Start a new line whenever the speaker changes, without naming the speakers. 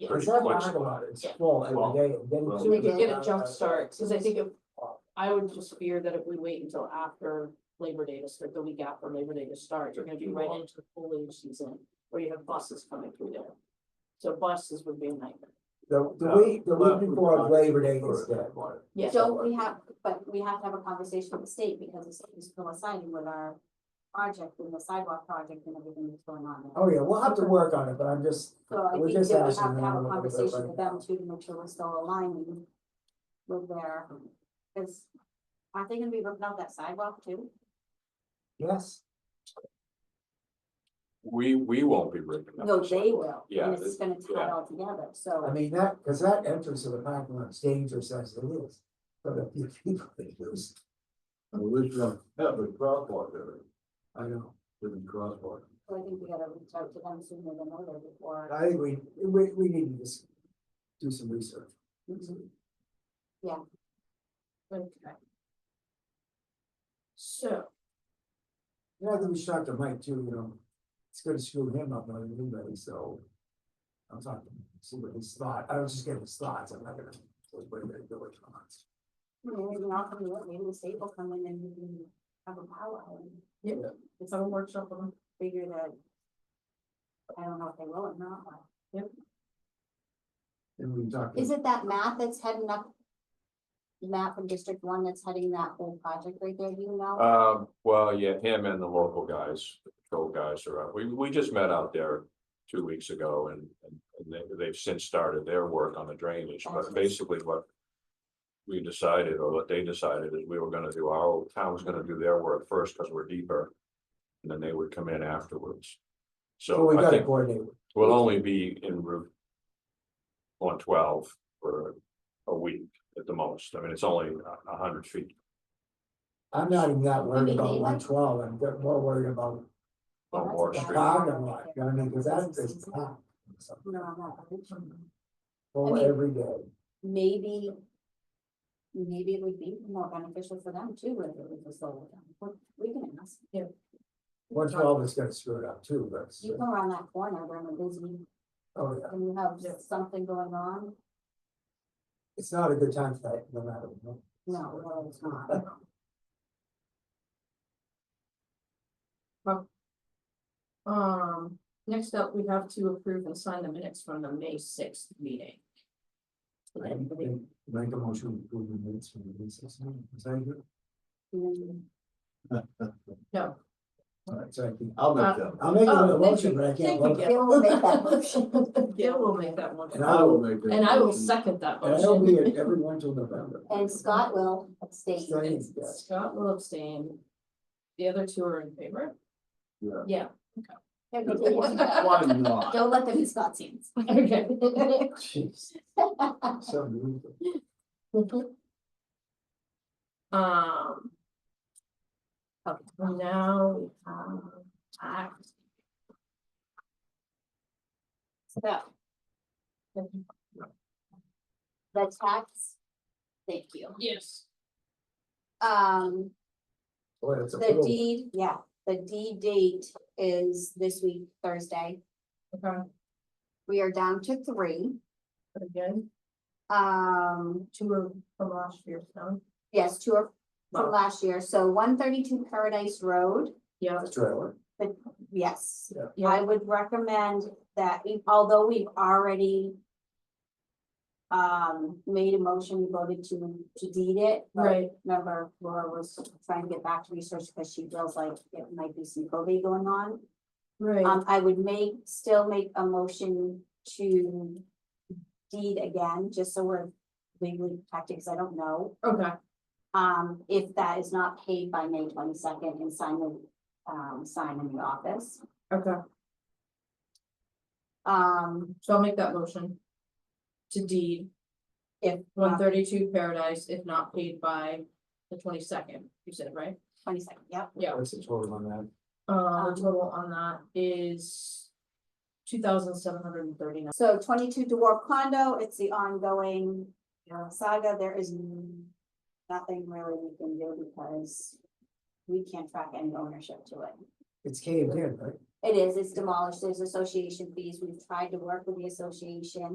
There's not much about it, it's full every day, and then.
So we could get a
uh,
jump start, cause I think if, I would just fear that if we wait until after Labor Day to start, the week after Labor Day to start, you're gonna be right into the foliage season. Where you have buses coming through there. So buses would be a nightmare.
The, the week, the week before Labor Day is dead.
Yeah,
So we have, but we have to have a conversation with the state because the state is coinciding with our project and the sidewalk project and everything that's going on there.
Oh, yeah, we'll have to work on it, but I'm just,
So I
we're
think
just
that we
asking
have to have
them a
a
little bit,
conversation
right?
with them too to make sure we're still aligning with their, because aren't they gonna be ripping out that sidewalk too?
yes,
We, we won't be ripping up.
No,
the
they
sidewalk.
will,
Yeah,
and it's gonna tie it all together,
I
so
mean, that, cause that entrance to the parking lot is dangerous as it is. For the few people they lose,
And we should have a crosswalk there,
I know,
within crosswalk.
so I think we gotta reach out to them sooner than later before,
I think we, we, we need to just do some research.
Mm-hmm.
okay. So,
You know, I think we should talk to Mike too, you know, it's gonna screw him up, not anybody, so. I'm talking, see what his thought, I was just getting his thoughts, I'm not gonna, what they're doing on it.
maybe not come to it, maybe the state will come in and we can have a powwow and
let's have a workshop on
figure that. I don't know if they will or not, but-
And we talked.
Is it that map that's heading up? Map from District One that's heading that whole project right there, you know?
Um, well, yeah, him and the local guys, the patrol guys are out. We, we just met out there two weeks ago and, and and they, they've since started their work on the drainage, but
Awesome.
basically what we decided, or what they decided, is we were gonna do, our town was gonna do their work first, cause we're deeper. And then they would come in afterwards.
So we
So I
gotta
think
coordinate with
we'll only be in Route one twelve for a week at the most. I mean, it's only a- a hundred feet
I'm not even that worried
Maybe
about
they
one
like-
twelve, I'm get more worried about
on
Oh, That's
Moore
bad.
Street.
parking lot, you know what I mean, cause that's just packed. So,
No, I'm not.
Full
I mean-
every day,
Maybe. Maybe it would be more beneficial for them too, if it was a solar. farm. We we can ask,
one twelve is gonna screw it up too, but.
you go around that corner during a busy,
Oh, yeah,
and you have something going on,
it's not a good time for that, no matter what.
no, well, it's not.
Um, next up, we have to approve and sign the minutes from the May sixth meeting.
Make make a motion to approve the minutes from the recess meeting, is that good?
Mm,
Alright, so I can,
I'll
Uh,
make them,
I'll make
Oh,
a
thank
motion,
you.
but I can't
Thank
vote.
you.
Bill will make that motion.
Gail will make that one,
And
I will make them.
and I will second that
And I'll be
motion.
at every one till November.
And Scott will abstain.
Abstain.
And Scott will abstain. The other two are in favor?
Yeah.
Yeah,
Why not?
Don't let them be Scott's hands.
okay.
Jeez, so brutal.
Um.
Okay.
Now we have act.
So. The tax, thank you,
Yes.
um,
Boy, that's a
the
little-
deed, yeah, the deed date is this week, Thursday.
Okay,
We are down to three,
again,
um,
two are from last year's town.
yes, two are
Wow.
from last year, so one thirty-two Paradise Road,
Yeah,
That's trailer.
yes.
yeah,
I would recommend that, we- although we've already. Um, made a motion, we voted to, to deed it. but
right,
Remember Laura was trying to get back to research because she feels like it might be some probate going on.
right,
Um, I would make, still make a motion to. Deed again, just so we're legally protected, because I don't know,
okay.
um, if that is not paid by May twenty second and sign the, um, sign in the office.
Okay,
Um,
so I'll make that motion. To deed
if. uh,
one thirty-two Paradise if not paid by the twenty-second, you said, right?
Twenty second, yep.
Yeah,
What's the total on that?
uh,
Um,
the total on that is two thousand seven hundred and thirty-nine.
So twenty-two Dwarf Condo, it's the ongoing uh, saga, there is n- nothing really we can do because we can't track any ownership to it.
It's caved in, right?
It is, it's demolished, there's association fees, we've tried to work with the association,